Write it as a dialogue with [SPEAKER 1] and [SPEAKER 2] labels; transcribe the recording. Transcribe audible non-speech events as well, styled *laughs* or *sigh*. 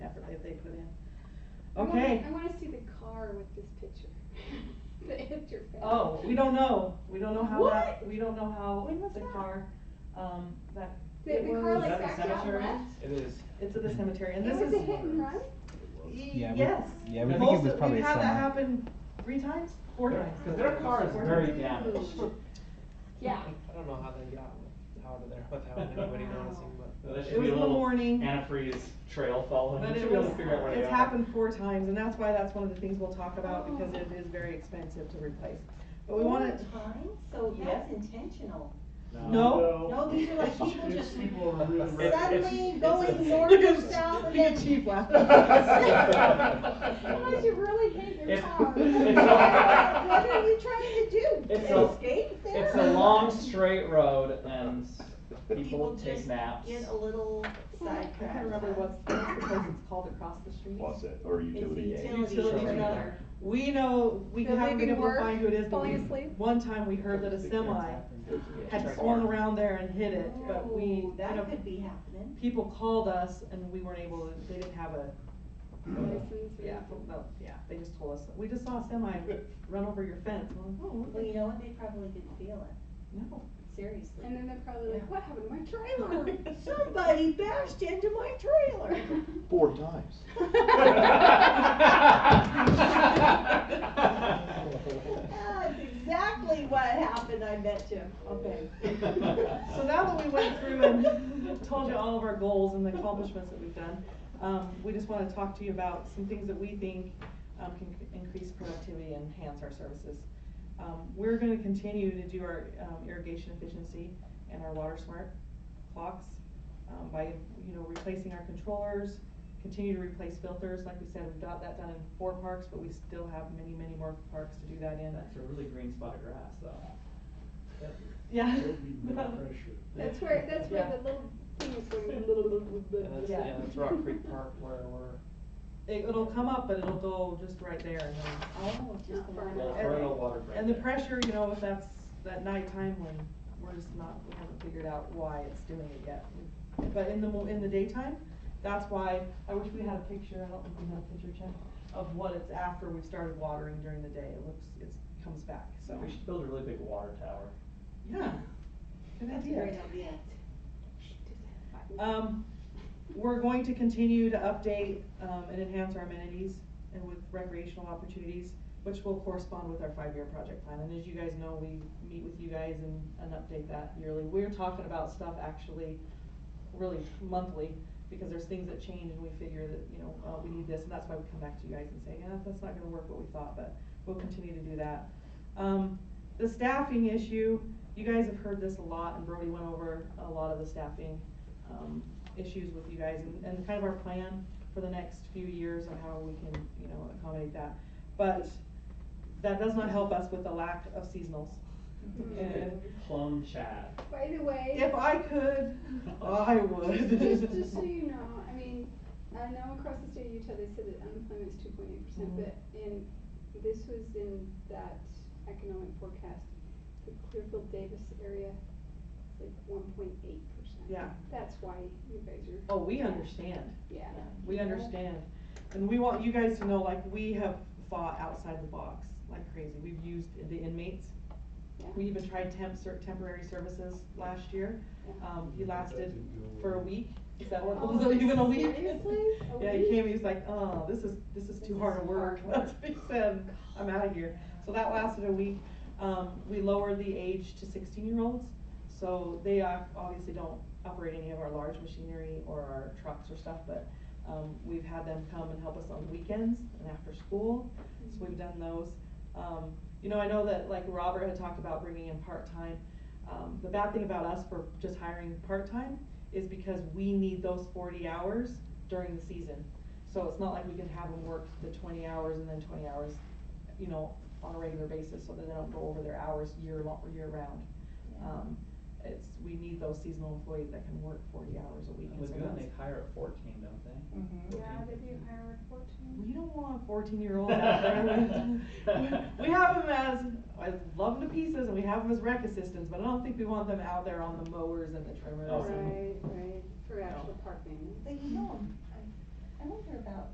[SPEAKER 1] I wanna-
[SPEAKER 2] Okay.
[SPEAKER 1] I wanna see the car with this picture. *laughs* The interface.
[SPEAKER 2] Oh, we don't know, we don't know how that,
[SPEAKER 1] What?
[SPEAKER 2] we don't know how
[SPEAKER 1] When was
[SPEAKER 2] the
[SPEAKER 1] that?
[SPEAKER 2] car, um, that.
[SPEAKER 1] The,
[SPEAKER 2] it
[SPEAKER 1] the car
[SPEAKER 2] was
[SPEAKER 1] like
[SPEAKER 3] at the
[SPEAKER 1] backed out
[SPEAKER 3] cemetery?
[SPEAKER 1] left.
[SPEAKER 3] It is.
[SPEAKER 2] It's at the cemetery,
[SPEAKER 1] It
[SPEAKER 2] and this
[SPEAKER 1] was
[SPEAKER 2] is.
[SPEAKER 1] a hit and run?
[SPEAKER 2] Y-
[SPEAKER 4] Yeah, we-
[SPEAKER 2] Yes.
[SPEAKER 4] yeah, we
[SPEAKER 2] Most
[SPEAKER 4] think
[SPEAKER 2] of-
[SPEAKER 4] it was probably
[SPEAKER 2] We've had that
[SPEAKER 4] summer.
[SPEAKER 2] happen three times, four times.
[SPEAKER 3] Cause their car is
[SPEAKER 2] Four
[SPEAKER 3] very
[SPEAKER 2] times.
[SPEAKER 1] *laughs*
[SPEAKER 3] damaged.
[SPEAKER 1] Yeah.
[SPEAKER 5] I don't know how they got out of there without
[SPEAKER 6] *laughs*
[SPEAKER 5] anybody noticing, but.
[SPEAKER 3] There
[SPEAKER 2] It
[SPEAKER 3] should
[SPEAKER 2] was
[SPEAKER 3] be a
[SPEAKER 2] one
[SPEAKER 3] little
[SPEAKER 2] morning.
[SPEAKER 3] antifreeze trail following.
[SPEAKER 2] But
[SPEAKER 3] You
[SPEAKER 2] it
[SPEAKER 3] should be able
[SPEAKER 2] was,
[SPEAKER 3] to figure out where they
[SPEAKER 2] it's
[SPEAKER 3] are.
[SPEAKER 2] happened four times, and that's why that's one of the things we'll talk about,
[SPEAKER 1] Oh.
[SPEAKER 2] because it is very expensive to replace. But we wanna,
[SPEAKER 6] so
[SPEAKER 2] that's
[SPEAKER 6] that's intentional.
[SPEAKER 2] No.
[SPEAKER 6] No, these are like people
[SPEAKER 3] It's
[SPEAKER 6] just
[SPEAKER 3] people are really
[SPEAKER 6] suddenly
[SPEAKER 3] reckless.
[SPEAKER 6] going
[SPEAKER 2] *laughs*
[SPEAKER 3] It's-
[SPEAKER 6] north
[SPEAKER 2] look
[SPEAKER 6] and
[SPEAKER 2] at,
[SPEAKER 6] south
[SPEAKER 2] look
[SPEAKER 6] and
[SPEAKER 2] at
[SPEAKER 6] then.
[SPEAKER 2] Chief *laughs*
[SPEAKER 1] *laughs*
[SPEAKER 2] laughing.
[SPEAKER 1] Unless you really hate your
[SPEAKER 2] *laughs*
[SPEAKER 3] It's-
[SPEAKER 1] car. What
[SPEAKER 3] it's a-
[SPEAKER 1] what are you
[SPEAKER 6] trying to do?
[SPEAKER 3] It's a-
[SPEAKER 6] Escape there?
[SPEAKER 3] *laughs* It's a long straight road and people
[SPEAKER 6] People
[SPEAKER 3] take
[SPEAKER 6] just
[SPEAKER 3] naps.
[SPEAKER 6] get a little
[SPEAKER 2] I can't
[SPEAKER 6] sidetracked.
[SPEAKER 2] remember what's, what's the place it's called across the street.
[SPEAKER 7] Wasset or utility.
[SPEAKER 6] It's
[SPEAKER 7] aid.
[SPEAKER 6] utility,
[SPEAKER 2] Utility.
[SPEAKER 6] another.
[SPEAKER 2] We know, we
[SPEAKER 1] They're
[SPEAKER 2] haven't been
[SPEAKER 1] leaving
[SPEAKER 2] able to
[SPEAKER 1] work,
[SPEAKER 2] find who it is, but
[SPEAKER 1] falling
[SPEAKER 2] we-
[SPEAKER 1] asleep.
[SPEAKER 2] one time we heard that a semi had
[SPEAKER 3] Check
[SPEAKER 2] swung
[SPEAKER 3] mark.
[SPEAKER 2] around there and hit it, but we, you
[SPEAKER 6] Ooh, Oh, That
[SPEAKER 2] know,
[SPEAKER 6] could be happening.
[SPEAKER 2] people called us and we weren't able, to- they didn't have a,
[SPEAKER 1] License or-
[SPEAKER 2] yeah, no, yeah, they just told us, we just saw a semi run over your fence. I'm like, "Oh,
[SPEAKER 6] Well, you know what, they probably didn't feel
[SPEAKER 2] No.
[SPEAKER 6] it, seriously.
[SPEAKER 1] And then they're probably like, what happened to my
[SPEAKER 2] *laughs*
[SPEAKER 1] trailer? *laughs*
[SPEAKER 6] Somebody bashed into my trailer.
[SPEAKER 7] Four times.
[SPEAKER 3] *laughs* *laughs*
[SPEAKER 6] *laughs* That's exactly what happened, I bet you, okay.
[SPEAKER 2] So now that we went through and *laughs* told you all of our goals and the accomplishments that we've done, um, we just wanna talk to you about some things that we think, um, can c- increase productivity and enhance our services. Um, we're gonna continue to do our, um, irrigation efficiency and our water smart clocks, um, by, you know, replacing our controllers, continue to replace filters, like we said, we've got that done in four parks, but we still have many, many more parks to do that in.
[SPEAKER 3] That's a really green spot of grass though.
[SPEAKER 2] Yeah.
[SPEAKER 1] *laughs* That's where, that's where
[SPEAKER 2] Yeah.
[SPEAKER 1] the little thing is going.
[SPEAKER 3] And
[SPEAKER 2] *laughs*
[SPEAKER 3] that's,
[SPEAKER 2] Yeah.
[SPEAKER 3] yeah, that's Rock Creek
[SPEAKER 1] *laughs*
[SPEAKER 3] Park where we're,
[SPEAKER 2] It, it'll come up, but it'll go just right there and then
[SPEAKER 6] Oh, just the one.
[SPEAKER 3] well,
[SPEAKER 2] And-
[SPEAKER 3] we're in a water break.
[SPEAKER 2] And the
[SPEAKER 3] there.
[SPEAKER 2] pressure, you know, if that's that nighttime when we're just not, we haven't figured out why it's doing it yet. But in the, mo- in the daytime, that's why, I wish we had a picture, I don't think we have a picture, Chad, of what it's after we've started watering during the day, it looks, it's, comes back, so.
[SPEAKER 3] We should build a really big water tower.
[SPEAKER 2] Yeah, good
[SPEAKER 6] That's a great
[SPEAKER 2] idea.
[SPEAKER 6] idea.
[SPEAKER 2] Um, we're going to continue to update, um, and enhance our amenities and with recreational opportunities, which will correspond with our five-year project plan. And as you guys know, we meet with you guys and, and update that yearly. We're talking about stuff actually really monthly, because there's things that change and we figure that, you know, uh, we need this, and that's why we come back to you guys and say, yeah, that's not gonna work what we thought, but we'll continue to do that. Um, the staffing issue, you guys have heard this a lot, and Brody went over a lot of the staffing, um, issues with you guys, and, and kind of our plan for the next few years on how we can, you know, accommodate that. But that does not help us with the lack of seasonals. And
[SPEAKER 1] Mm-hmm.
[SPEAKER 3] Plum Chad.
[SPEAKER 1] By the way.
[SPEAKER 2] if I could, I *laughs* would.
[SPEAKER 1] Just, just so you know, I mean, I know across the state of Utah, they said that unemployment's two point eight percent,
[SPEAKER 2] Mhm.
[SPEAKER 1] but in, this was in that economic forecast, the Clearfield Davis area, it's like one point eight percent.
[SPEAKER 2] Yeah.
[SPEAKER 1] That's why you guys are.
[SPEAKER 2] Oh, we understand.
[SPEAKER 1] Yeah.
[SPEAKER 2] We understand, and we want you guys to know, like, we have fought outside the box like crazy, we've used the inmates.
[SPEAKER 1] Yeah.
[SPEAKER 2] We even tried temp, ser- temporary services last year, um, he lasted for a week, is that what, was *laughs* it even a week?
[SPEAKER 1] Seriously? A
[SPEAKER 2] Yeah, he
[SPEAKER 1] week?
[SPEAKER 2] came, he was like, oh, this is, this is too
[SPEAKER 6] This
[SPEAKER 2] hard
[SPEAKER 6] is
[SPEAKER 2] to work, *laughs*
[SPEAKER 6] hard
[SPEAKER 2] that's what he said, I'm out of here. So that lasted a week, um, we lowered the age to sixteen-year-olds, so they uh, obviously don't operate any of our large machinery or our trucks or stuff, but, um, we've had them come and help us on weekends and after school, so we've done those. Um, you know, I know that like Robert had talked about bringing in part-time, um, the bad thing about us for just hiring part-time is because we need those forty hours during the season. So it's not like we can have them work the twenty hours and then twenty hours, you know, on a regular basis, so that they don't go over their hours year long, year round. Um, it's, we need those seasonal employees that can work forty hours a week. and so
[SPEAKER 3] Lagoon,
[SPEAKER 2] that's-
[SPEAKER 3] they hire at fourteen, don't they?
[SPEAKER 6] Mhm.
[SPEAKER 1] Yeah, they do hire at fourteen.
[SPEAKER 2] We don't want fourteen-year-olds out there with, we have them as, I love them to pieces, and we have them as rec assistants, but I don't think we want them out there on the mowers and the trimmers.
[SPEAKER 3] Awesome.
[SPEAKER 2] and-
[SPEAKER 1] Right, right, for actual park maintenance.
[SPEAKER 6] But you know, I, I wonder about